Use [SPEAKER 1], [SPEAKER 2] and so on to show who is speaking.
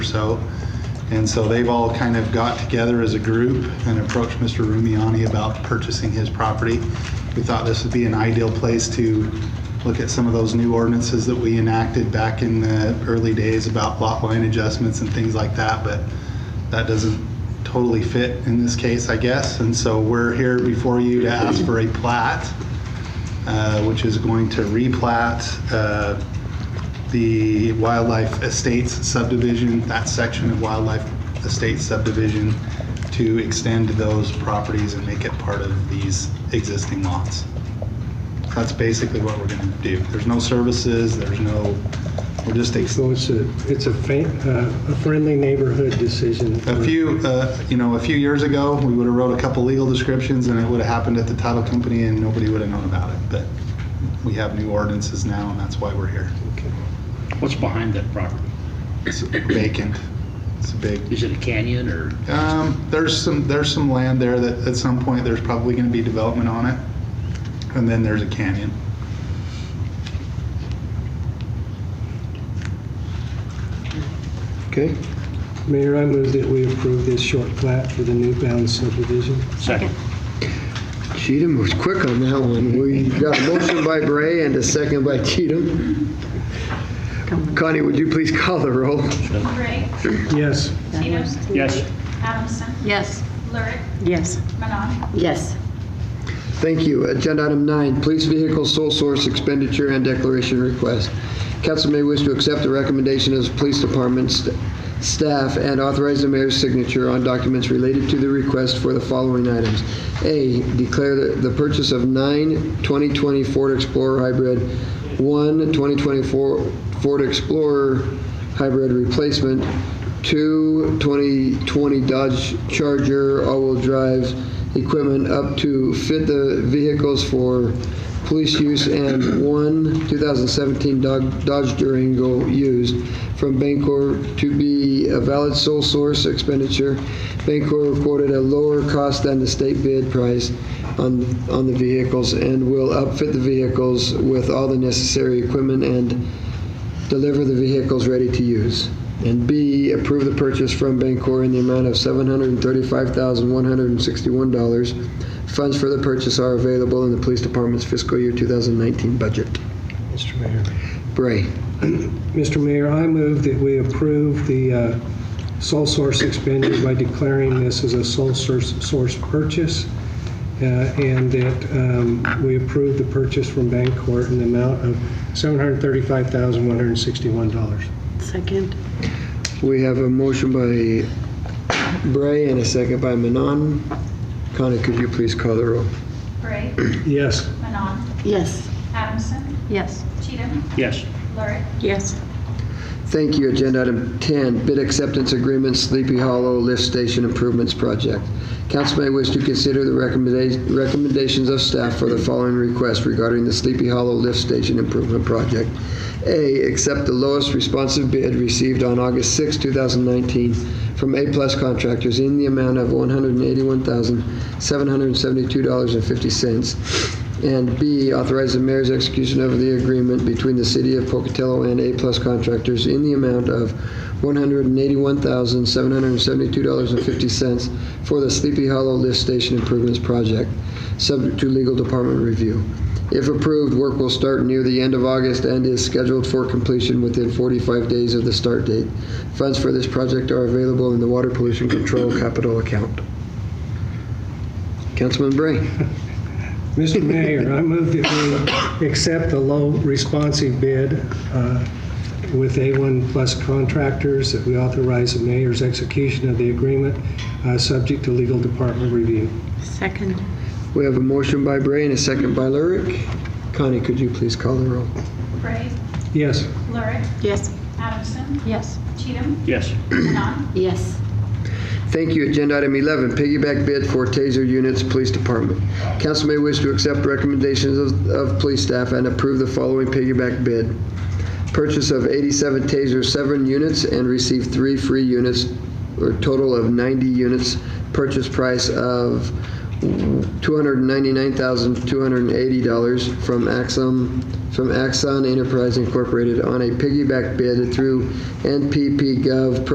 [SPEAKER 1] so. And so they've all kind of got together as a group and approached Mr. Rumiani about purchasing his property. We thought this would be an ideal place to look at some of those new ordinances that we enacted back in the early days about lot line adjustments and things like that, but that doesn't totally fit in this case, I guess. And so we're here before you to ask for a plat, uh, which is going to replat uh, the Wildlife Estates subdivision, that section of Wildlife Estates subdivision, to extend those properties and make it part of these existing lots. That's basically what we're going to do. There's no services, there's no, we're just extending
[SPEAKER 2] So it's a, it's a fa- uh, a friendly neighborhood decision.
[SPEAKER 1] A few, uh, you know, a few years ago, we would have wrote a couple legal descriptions, and it would have happened at the title company, and nobody would have known about it. But we have new ordinances now, and that's why we're here.
[SPEAKER 3] What's behind that property?
[SPEAKER 1] It's vacant. It's a big.
[SPEAKER 3] Is it a canyon or?
[SPEAKER 1] Um, there's some there's some land there that at some point there's probably going to be development on it, and then there's a canyon.
[SPEAKER 2] Okay. Mayor, I move that we approve this short plat for the New Bound subdivision.
[SPEAKER 3] Second.
[SPEAKER 4] Cheatham was quick on that one. We got a motion by Bray and a second by Cheatham. Connie, would you please call the roll?
[SPEAKER 5] Gray,
[SPEAKER 2] Yes.
[SPEAKER 5] Cheatham,
[SPEAKER 3] Yes.
[SPEAKER 5] Adamson,
[SPEAKER 6] Yes.
[SPEAKER 5] Lurick,
[SPEAKER 6] Yes.
[SPEAKER 5] Manon,
[SPEAKER 6] Yes.
[SPEAKER 4] Thank you. Agenda item nine, police vehicle sole source expenditure and declaration request. Council may wish to accept the recommendation of the police department st- staff and authorize the mayor's signature on documents related to the request for the following items. A, declare the- the purchase of nine 2020 Ford Explorer Hybrid, one 2024 Ford Explorer Hybrid replacement, two 2020 Dodge Charger all-wheel drive equipment up to fit the vehicles for police use and one 2017 Dog- Dodge Durango used from Bancor to be a valid sole source expenditure. Bancor quoted a lower cost than the state bid price on, on the vehicles and will outfit the vehicles with all the necessary equipment and deliver the vehicles ready to use. And B, approve the purchase from Bancor in the amount of $735,161. Funds for the purchase are available in the police department's fiscal year 2019 budget.
[SPEAKER 2] Mr. Mayor.
[SPEAKER 4] Bray,
[SPEAKER 2] Mr. Mayor, I move that we approve the uh, sole source expenditure by declaring this as a sole source, source purchase, uh, and that um, we approve the purchase from Bancorp in the amount of $735,161.
[SPEAKER 6] Second.
[SPEAKER 4] we have a motion by Bray and a second by Manon. Connie, could you please call the roll?
[SPEAKER 5] Gray,
[SPEAKER 2] Yes.
[SPEAKER 5] Manon,
[SPEAKER 6] Yes.
[SPEAKER 5] Adamson,
[SPEAKER 6] Yes.
[SPEAKER 5] Cheatham,
[SPEAKER 3] Yes.
[SPEAKER 5] Lurick,
[SPEAKER 6] Yes.
[SPEAKER 4] Thank you. Agenda item 10, bid acceptance agreement, Sleepy Hollow Lift Station Improvements Project. Council may wish to consider the recommenda- recommendations of staff for the following requests regarding the Sleepy Hollow Lift Station Improvement Project. A, accept the lowest responsive bid received on August 6, 2019 from A-plus contractors in the amount of $181,772.50. And B, authorize the mayor's execution of the agreement between the city of Pocatello and A-plus contractors in the amount of $181,772.50 for the Sleepy Hollow Lift Station Improvements Project, subject to legal department review. If approved, work will start near the end of August and is scheduled for completion within 45 days of the start date. Funds for this project are available in the Water Pollution Control Capital Account. Councilman Bray.
[SPEAKER 2] Mr. Mayor, I move that we accept the low responsive bid uh, with A1 Plus Contractors, that we authorize the mayor's execution of the agreement, uh, subject to legal department review.
[SPEAKER 6] Second.
[SPEAKER 4] We have a motion by Bray and a second by Lurick. Connie, could you please call the roll?
[SPEAKER 5] Gray,
[SPEAKER 2] Yes.
[SPEAKER 5] Lurick,
[SPEAKER 6] Yes.
[SPEAKER 5] Adamson,
[SPEAKER 6] Yes.
[SPEAKER 5] Cheatham,
[SPEAKER 3] Yes.
[SPEAKER 5] Manon,
[SPEAKER 6] Yes.
[SPEAKER 4] Thank you. Agenda item 11, piggyback bid for taser units, police department. Council may wish to accept recommendations of, of police staff and approve the following piggyback bid. Purchase of 87 taser 7 units and receive three free units, or total of 90 units. Purchase price of $299,280 from Axon, from Axon Enterprise Incorporated on a piggyback bid through NPP Gov.